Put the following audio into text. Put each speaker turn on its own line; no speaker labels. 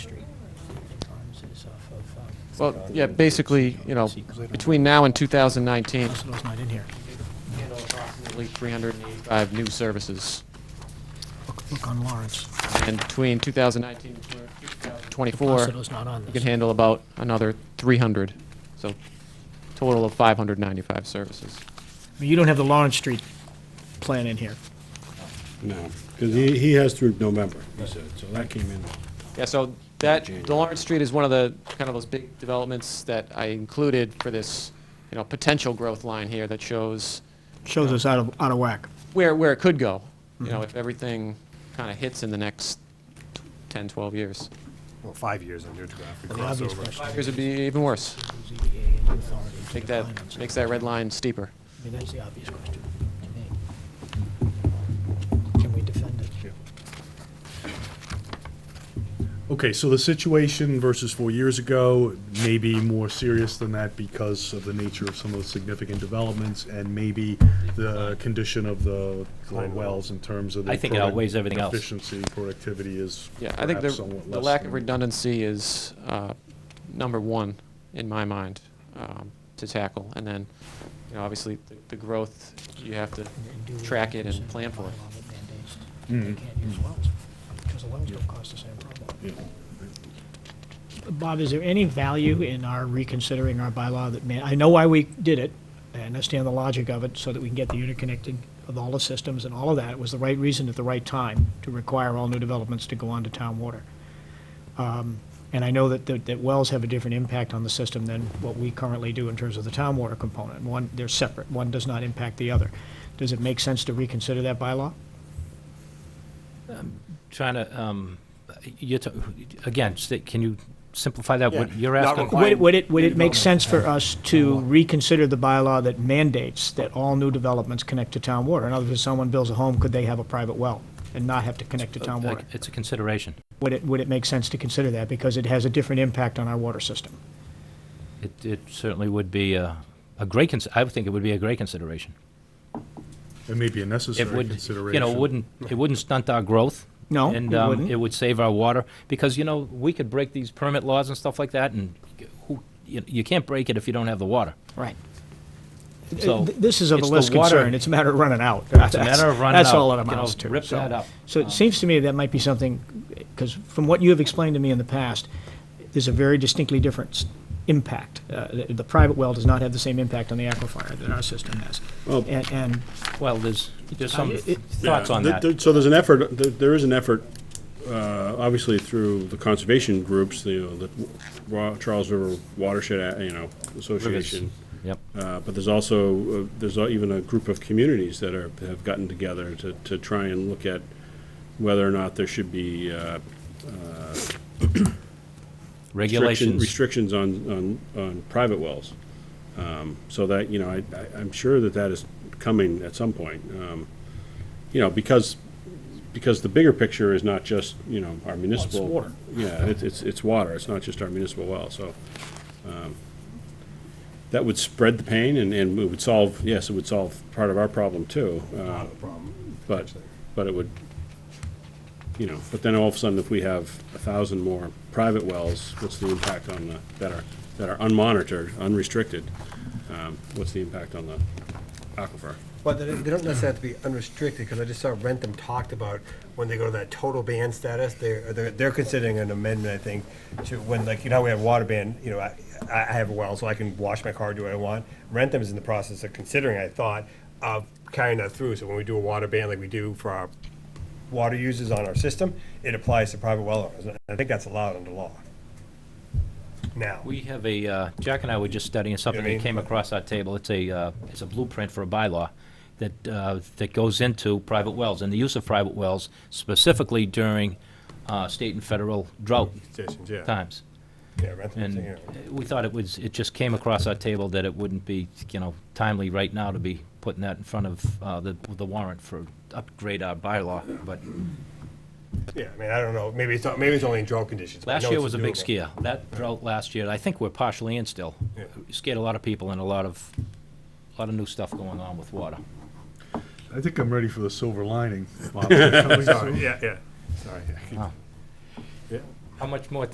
Well, yeah, basically, you know, between now and 2019,
Hospital's not in here.
approximately 385 new services.
Look, look on Lawrence.
And between 2019 and 2024,
Hospital's not on
you can
this.
handle about another 300. So total of 595 services.
I mean, You don't have the Lawrence Street plan in here.
No, because he, he has through November, he said, so that came in.
Yeah, so that,
January.
the Lawrence Street is one of the, kind of those big developments that I included for this, you know, potential growth line here that shows
Shows us out of, out of whack.
where, where it could go, you know, if everything kind of hits in the next 10, 12 years.
Well, five years under draft. we
The
cross
obvious
over.
question
Five years would be even worse.
is ZBA and authority to
Make
define on
that,
something.
makes that red line steeper.
I mean, that's the obvious question to me. Can we defend it?
Okay, so the situation versus four years ago may be more serious than that because of the nature of some of the significant developments and maybe the condition of the the wells in terms of the
I think it
product-
outweighs everything else.
Efficiency, productivity is
Yeah, I think
perhaps
the,
somewhat
the
less
lack of
than-
redundancy is uh, number one in my mind um, to tackle. And then, you know, obviously, the- the growth, you have to track it and plan for it. Hmm.
They
Mhm.
can't use wells, because the wells don't cause the same problem.
Yeah.
Bob, is there any value in our reconsidering our bylaw that may, I know why we did it, I understand the logic of it, so that we can get the interconnecting of all the systems and all of that, it was the right reason at the right time to require all new developments to go onto town water. Um, And I know that, that that wells have a different impact on the system than what we currently do in terms of the town water component. One, they're separate, one does not impact the other. Does it make sense to reconsider that bylaw?
Trying to, um, you're, ta- again, sta- can you simplify that, what
Yeah.
you're
Not
asking?
required.
Would, would it, would it make
Redevelopment.
sense for us to
Uh-huh.
reconsider the bylaw that mandates that all new developments connect to town water? In other words, if someone builds a home, could they have a private well and not have to connect to town water?
It's a consideration.
Would it, would it make sense to consider that, because it has a different impact on our water system?
It, it certainly would be a, a great, cons- I would think it would be a great consideration.
It may be a necessary
It would,
consideration.
you know, wouldn't, it wouldn't stunt our growth.
No,
And,
it
um,
wouldn't.
it would save our water, because, you know, we could break these permit laws and stuff like that, and who, you, you can't break it if you don't have the water.
Right.
So,
This is of a
it's the
less
water-
concern, it's a matter of running out.
It's a matter of running
That's
out,
all it
you know,
amounts to.
Rip
So-
that up.
So it seems to me that might be something, because from what you have explained to me in the past, there's a very distinctly different s- impact. Uh, The the private well does not have the same impact on the aquifer that our system has.
Well-
And, and
Well, there's, there's some
I- it-
thoughts on
Th-
that.
th- So there's an effort, th- there is an effort, uh, obviously through the conservation groups, the, uh, the Wa- Charles River Watershed, uh, you know, Association.
Yep.
Uh, But there's also, uh, there's al- even a group of communities that are, have gotten together to, to try and look at whether or not there should be uh, restriction-
Regulations.
restrictions on, on, on private wells. Um, So that, you know, I, I- I'm sure that that is coming at some point. Um, You know, because, because the bigger picture is not just, you know, our municipal.
water.
Yeah, it's, it's, it's water, it's not just our municipal well, so. um, That would spread the pain and, and it would solve, yes, it would solve part of our problem too. uh, But, but it would, you know, but then all of a sudden, if we have a thousand more private wells, what's the impact on the, that are, that are unmonitored, unrestricted? Um, What's the impact on the aquifer?
Well, they they don't necessarily have to be unrestricted, because I just saw Rentham talked about, when they go to that total ban status, they're, they're they're considering an amendment, I think, to when, like, you know, how we have water ban, you know, I, I I have a well, so I can wash my car, do what I want. Rentham is in the process of considering, I thought, of carrying that through, so when we do a water ban like we do for our water users on our system, it applies to private well owners, and I think that's allowed under law. Now.
We have a, uh, Jack and I were just studying something
mean?
that came across our table. It's a, uh, it's a blueprint for a bylaw that, uh, that goes into private wells and the use of private wells specifically during uh, state and federal drought
Stations, yeah.
times.
Yeah, Rentham's thinking
And
of it.
we thought it was, it just came across our table that it wouldn't be, you know, timely right now to be putting that in front of uh, the the warrant for upgrade our bylaw, but
Yeah, I mean, I don't know, maybe it's, not- maybe it's only in drought conditions. but I
Last
know
year
it's
was a big
doable.
scare. That drought last year, I think we're partially in still.
Yeah.
Scared a lot of people and a lot of, a lot of new stuff going on with water.
I think I'm ready for the silver lining. Bob.
Sorry, yeah, yeah, sorry.
How much more